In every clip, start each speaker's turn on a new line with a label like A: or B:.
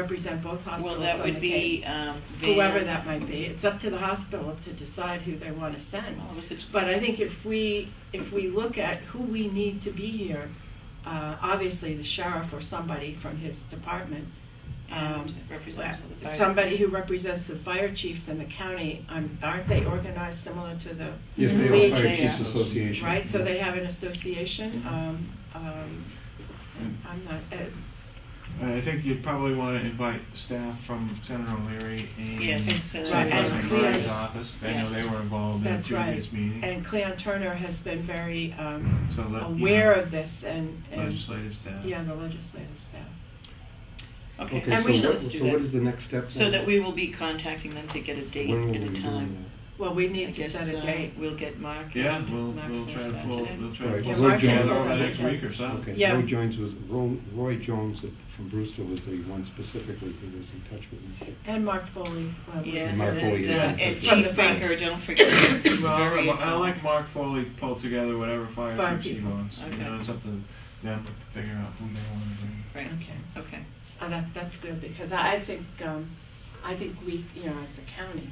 A: represent both hospitals
B: Well, that
A: on the
B: would be,
A: case.
B: um, Van.
A: whoever that might be. It's up to the hospital to decide who they want to send.
B: Well, it was the-
A: But I think if we, if we look at who we need to be here, uh, obviously the sheriff or somebody from his department. um,
B: And representatives of the fire
A: Somebody who
B: department.
A: represents the fire chiefs in the county, um, aren't they organized similar to the?
C: Yes, they
A: police?
C: are Fire
B: They
C: Chiefs
B: are.
C: Association.
A: Right, so they have an association, um, um, I'm not, uh,
D: I think you'd probably want to invite staff from Senator O'Leary and
B: Yes,
D: Senate
B: Senator
D: President
A: O'Leary.
D: Ryan's
A: Yes.
D: office. I know they
B: Yes.
D: were involved in the
A: that's right.
D: previous meeting.
A: And Cleon Turner has been very, um,
D: So let- you
A: aware
D: know,
A: of this and, and,
D: Legislative staff.
A: yeah, the legislative staff.
B: Okay,
C: Okay,
A: And
C: so
A: we should-
C: what, so what is the next step?
B: So that we will be contacting them to get a date
C: When will we
B: and
C: be
B: a
C: doing
B: time.
A: Well, we
B: I
A: need to
B: guess,
A: set a
B: uh,
A: date.
B: We'll get Mark.
D: Yeah,
B: and
D: we'll,
B: Mark's
D: we'll
B: gonna
D: try to
B: start
D: pull,
B: today.
D: we'll
C: All
D: try to
C: right,
D: pull
C: Roy
D: it
C: Jones-
D: together over the next week or
C: that?
D: so.
C: Okay,
A: Yeah.
C: Roy Jones was, Ro- Roy Jones that- from Brewster was the one specifically who was in touch with me.
A: And Mark Foley. well, was-
B: Yes,
C: Mark Foley,
B: and, uh,
C: yeah.
B: and
A: From the
B: Chief
A: fire.
B: Baker, don't forget. He's
D: Well, I
B: very
D: like- I
B: involved.
D: like Mark Foley pull together whatever
A: Fire
D: fire chiefs he
A: people.
D: wants. You
B: Okay.
D: know, it's up to them to figure out who they want to bring.
B: Right,
A: Okay,
B: okay.
A: oh, that, that's good, because I, I think, um, I think we, you know, as a county,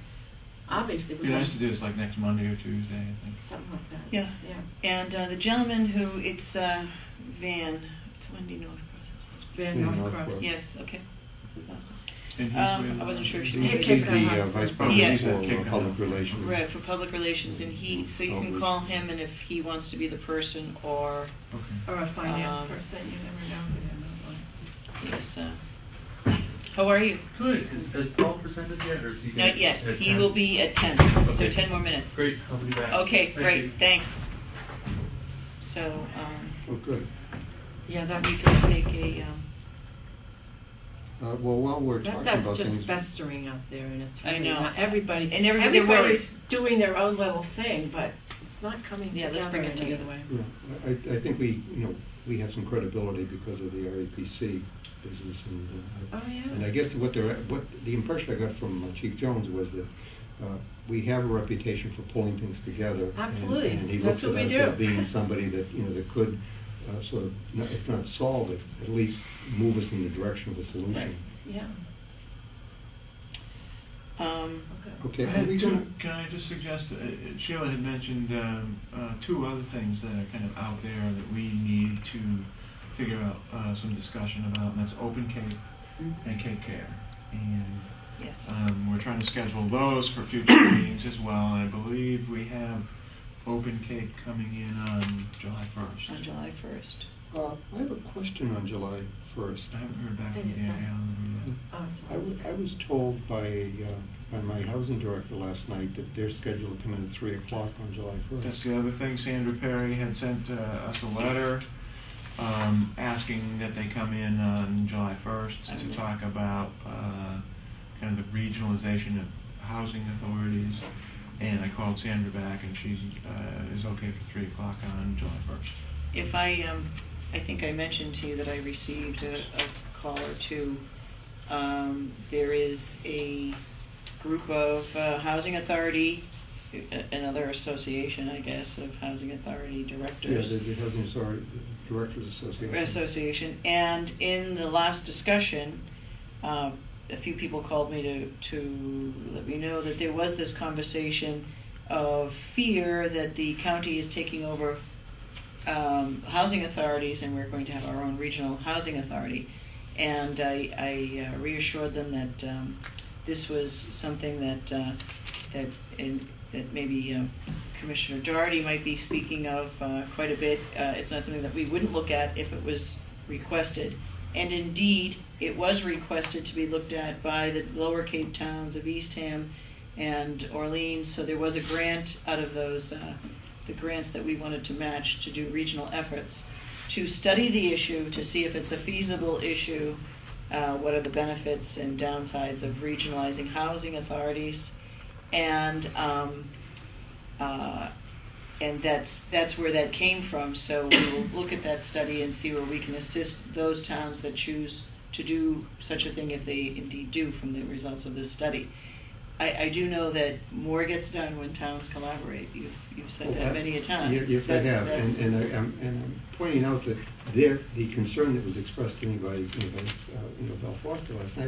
A: obviously
D: It'd
A: we
D: be
A: want
D: nice to do this like next Monday or Tuesday, I think.
A: something like that.
B: Yeah.
A: Yeah.
B: And uh, the gentleman who, it's uh, Van, it's Wendy Northcross.
A: Van
C: Yeah,
A: Northcross.
C: Northcross.
B: Yes, okay. That's his last name.
D: And he's
B: Um,
D: with,
B: I wasn't
D: uh,
B: sure if she
C: He's
A: Hey,
B: was-
C: he's
A: Cape Cod
C: the uh,
A: Hospice.
C: vice president
D: Yeah.
C: for uh, public relations.
B: Right, for public relations, and he, so you can call him, and if he wants to be the person, or
D: Okay.
A: Or a
B: Um,
A: finance person, you never know who they might want.
B: he's, uh, how are you?
E: Good. Is, has Paul presented yet, or is he?
B: Not yet,
E: at
B: he
E: 10?
B: will be at ten, so
E: Okay.
B: ten more minutes.
E: Great. I'll be back.
B: Okay,
E: Thank
B: great,
E: you.
B: thanks. So, um,
C: Oh, good.
A: Yeah,
B: that
A: that's,
B: we can take a, um,
C: Uh, well, while we're
A: that,
C: talking
A: that's
C: about
A: just
C: things.
A: festering out there and it's
B: I
A: really
B: know.
A: not, everybody,
B: And everybody- they're worried.
A: everybody's doing their own little thing, but it's not coming
B: Yeah, let's
A: together
B: bring
A: in
B: it
A: any
B: together.
A: way.
C: Yeah, I, I- I think we, you know, we have some credibility because of the REPC business and. uh,
A: Oh, yeah.
C: And I guess what they're, what, the impression I got from uh, Chief Jones was that uh, we have a reputation for pulling things together. and-
A: Absolutely.
C: And he
A: That's
C: looks at
A: what
C: us
A: we
C: as
A: do.
C: being somebody that, you know, that could uh, sort of, not- if not solve it, at least move us in the direction of a solution.
A: Yeah,
B: um,
C: Okay.
D: I
C: are
D: had
C: we
D: two-
C: gonna-
D: Can I just suggest, uh, uh, Sheila had mentioned um, uh, two other things that are kind of out there that we need to figure out uh, some discussion about, and that's Open Cape and Cape Care. And
B: yes.
E: Uh,
D: um, we're trying to schedule those for future meetings as well. I believe we have Open Cape coming in on July 1st.
B: on July 1st.
C: Uh, I have a question on July first.
D: I haven't heard back from
A: Think it's
D: Gary
A: on.
D: Allen
C: Uh-huh.
D: yet.
A: Oh,
C: I was, I was told by, uh, by my housing director last night that they're scheduled to come in at three o'clock on July
D: That's
C: first.
D: the other thing, Sandra Perry had sent uh, us a letter um, asking that they come in on July 1st
B: Okay.
D: to talk about uh, kind of the regionalization of housing authorities. And I called Sandra back and she uh, is okay for 3 o'clock on July 1st.
B: If I, um, I think I mentioned to you that I received a, a call or two. Um, there is a group of uh, housing authority, a- another association, I guess, of housing authority
C: Yeah,
B: directors.
C: the, the housing, sorry, directors association.
B: Association, and in the last discussion, uh, a few people called me to, to let me know that there was this conversation of fear that the county is taking over um, housing authorities and we're going to have our own regional housing authority. And I, I uh, reassured them that um, this was something that uh, that in, that maybe uh, Commissioner Doherty might be speaking of uh, quite a bit. Uh, it's not something that we wouldn't look at if it was requested. And indeed, it was requested to be looked at by the lower Cape towns of Eastham and Orleans. So there was a grant out of those, uh, the grants that we wanted to match to do regional efforts to study the issue, to see if it's a feasible issue, uh, what are the benefits and downsides of regionalizing housing authorities, and um, uh, and that's that's where that came from. So we will look at that study and see where we can assist those towns that choose to do such a thing if they indeed do from the results of this study. I, I do know that more gets done when towns collaborate. You've, you've said that many a time.
C: Ye- Yes, I
B: That's-
C: have, and,
B: that's-
C: and I, I'm, and I'm pointing out that there, the concern that was expressed to me by, you know, by, uh, you know, Bell Foster last night